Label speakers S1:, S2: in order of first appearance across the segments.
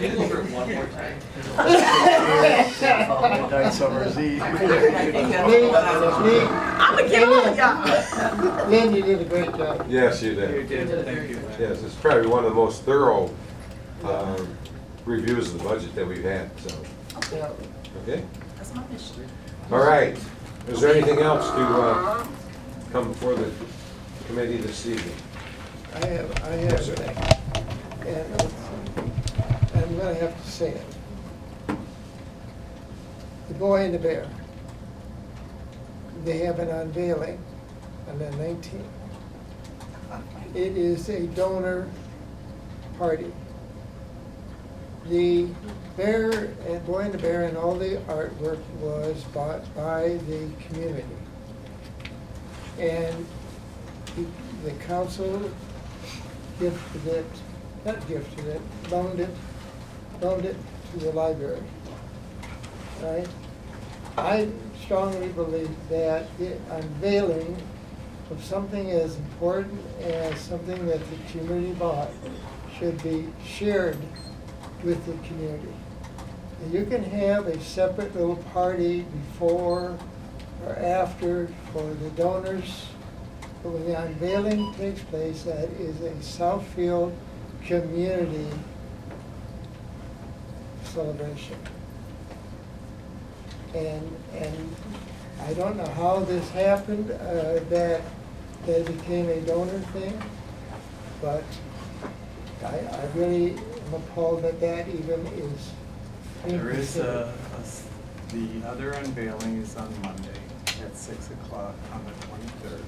S1: Maybe we'll burn one more time.
S2: Night summer's eve.
S3: I'm gonna get all of y'all.
S4: Lynn, you did a great job.
S5: Yes, you
S1: You
S5: did.
S1: did, thank you.
S5: Yes, it's probably one of the most thorough um, reviews of the budget that we've had, so,
S4: Yeah.
S5: okay?
S3: That's my mission.
S5: All right. Is there anything else to uh, come before the committee this evening?
S4: I have, I have a thing. And it's- I'm gonna have to say it. The Boy and the Bear. They have an unveiling on the nineteenth. It is a donor party. The bear, and Boy and the Bear and all the artwork was bought by the community. And the- the council gifted it, not gifted it, loaned it, loaned it to the library. Right? I strongly believe that the unveiling of something as important as something that the community bought should be shared with the community. And You can have a separate little party before or after for the donors. But when the unveiling takes place, that is a Southfield community celebration. And, and I don't know how this happened, uh, that they became a donor thing, but I, I really am appalled that that even is. being
S1: There is uh,
S4: considered.
S1: a, a s- the other unveiling is on Monday at six o'clock on the twenty-third.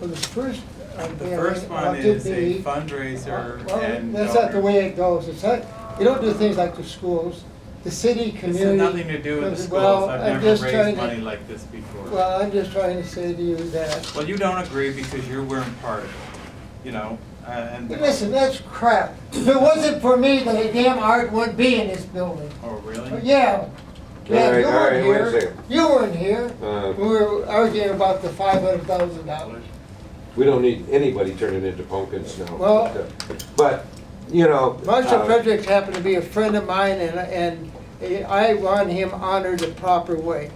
S4: Well, the first uh,
S1: The
S4: unveiling
S1: first
S4: ought
S1: one
S4: to
S1: is a
S4: be-
S1: fundraiser
S4: Well,
S1: and.
S4: That's not the
S1: donor.
S4: way it goes. It's not, you don't do things like the schools, the city,
S1: This
S4: community.
S1: has nothing to do with the
S4: well,
S1: schools.
S4: I'm
S1: I've
S4: just
S1: never
S4: trying
S1: raised
S4: to-
S1: money like this before.
S4: Well, I'm just trying to say to you that,
S1: Well, you don't agree because you weren't part of it, you know, uh, and.
S4: listen, that's crap. If it wasn't for me, the damn art would be in this building.
S1: Oh, really?
S4: Yeah.
S5: All
S4: Yeah,
S5: right,
S4: you
S5: all right,
S4: weren't
S5: wait a
S4: here.
S5: second.
S4: You weren't here.
S5: Uh,
S4: We were arguing about the five hundred thousand dollars.
S5: We don't need anybody turning into pumpkins now.
S4: Well-
S5: But, you know.
S4: Marshall
S5: uh,
S4: Fredericks happened to be a friend of mine, and, and I want him honored the proper way.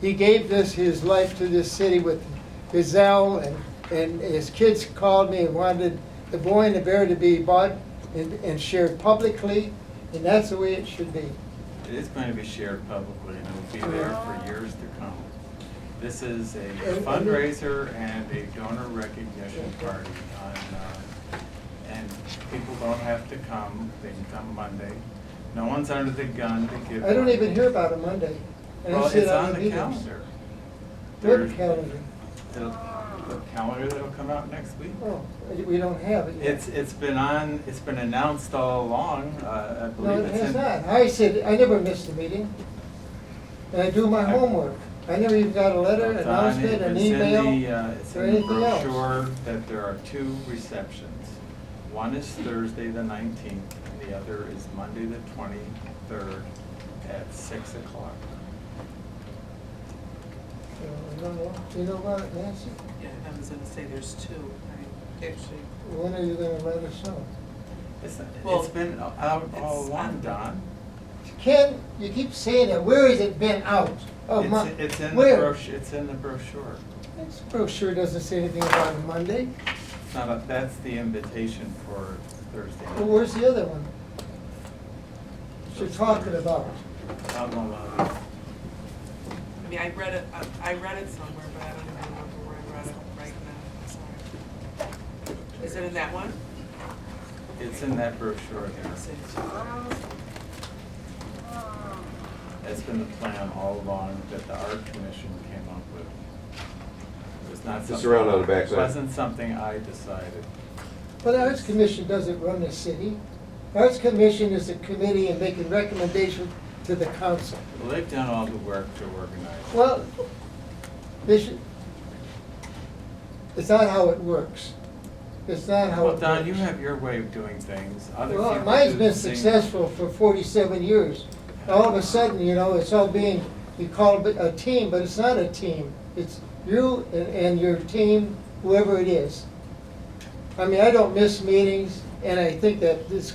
S4: He gave this, his life to this city with Gazelle, and, and his kids called me and wanted the boy and the bear to be bought and, and shared publicly, and that's the way it should be.
S1: It is going to be shared publicly and it will be there for years to come. This is a
S4: and-
S1: fundraiser and a donor recognition party on, uh, and people don't have to come, they can come Monday. No one's under the gun to give.
S4: I don't
S1: money.
S4: even hear about it Monday. and I
S1: Well,
S4: sit
S1: it's on the
S4: meetings.
S1: calendar.
S4: What
S1: There's-
S4: calendar?
S1: It'll- The calendar that'll come out next week.
S4: Oh, we don't have it yet.
S1: It's, it's been on, it's been announced all along, uh, I
S4: No,
S1: believe
S4: it
S1: it's
S4: has
S1: in.
S4: not. I said, I never missed a meeting. And I do my
S1: I-
S4: homework. I never even got a letter,
S1: It's on-
S4: announcement, an
S1: it's in
S4: email,
S1: the, uh, It's
S4: or
S1: in the
S4: anything else.
S1: brochure that there are two receptions. One is Thursday, the nineteenth, and the other is Monday, the twenty-third, at six o'clock.
S4: You know, You know what, Nancy?
S6: Yeah, I was gonna say there's two, I actually,
S4: When are you gonna let us know?
S1: It's,
S6: Well,
S1: it's been out all
S6: it's
S1: along,
S6: on-
S1: Don.
S4: Ken, you keep saying that. Where has it been out? Oh,
S1: It's-
S4: my.
S1: It's in the
S4: where?
S1: brochure, it's in the brochure.
S4: This brochure doesn't say anything about a Monday.
S1: It's not, a- that's the invitation for Thursday.
S4: Well, where's the other one? that You're talking about.
S1: Out in the lobby.
S6: I mean, I read it, I- I read it somewhere, but I don't even remember where I read it right now, I'm sorry. Is it in that one?
S1: It's in that brochure there.
S6: It's in two.
S1: That's been the plan all along that the art commission came up with. It was not
S5: It's
S1: something.
S5: around on the backside.
S1: Wasn't something I decided.
S4: But the Arts Commission doesn't run the city. Arts Commission is a committee and making recommendations to the council.
S1: Well, they've done all the work to organize. it.
S4: Well, they should, it's not how it works. It's not how it
S1: Well,
S4: works.
S1: Don, you have your way of doing things. Other
S4: Well,
S1: people
S4: mine's
S1: do
S4: been
S1: things-
S4: successful for forty-seven years. All of a sudden, you know, it's all being, you call it a team, but it's not a team. It's you and, and your team, whoever it is. I mean, I don't miss meetings, and I think that this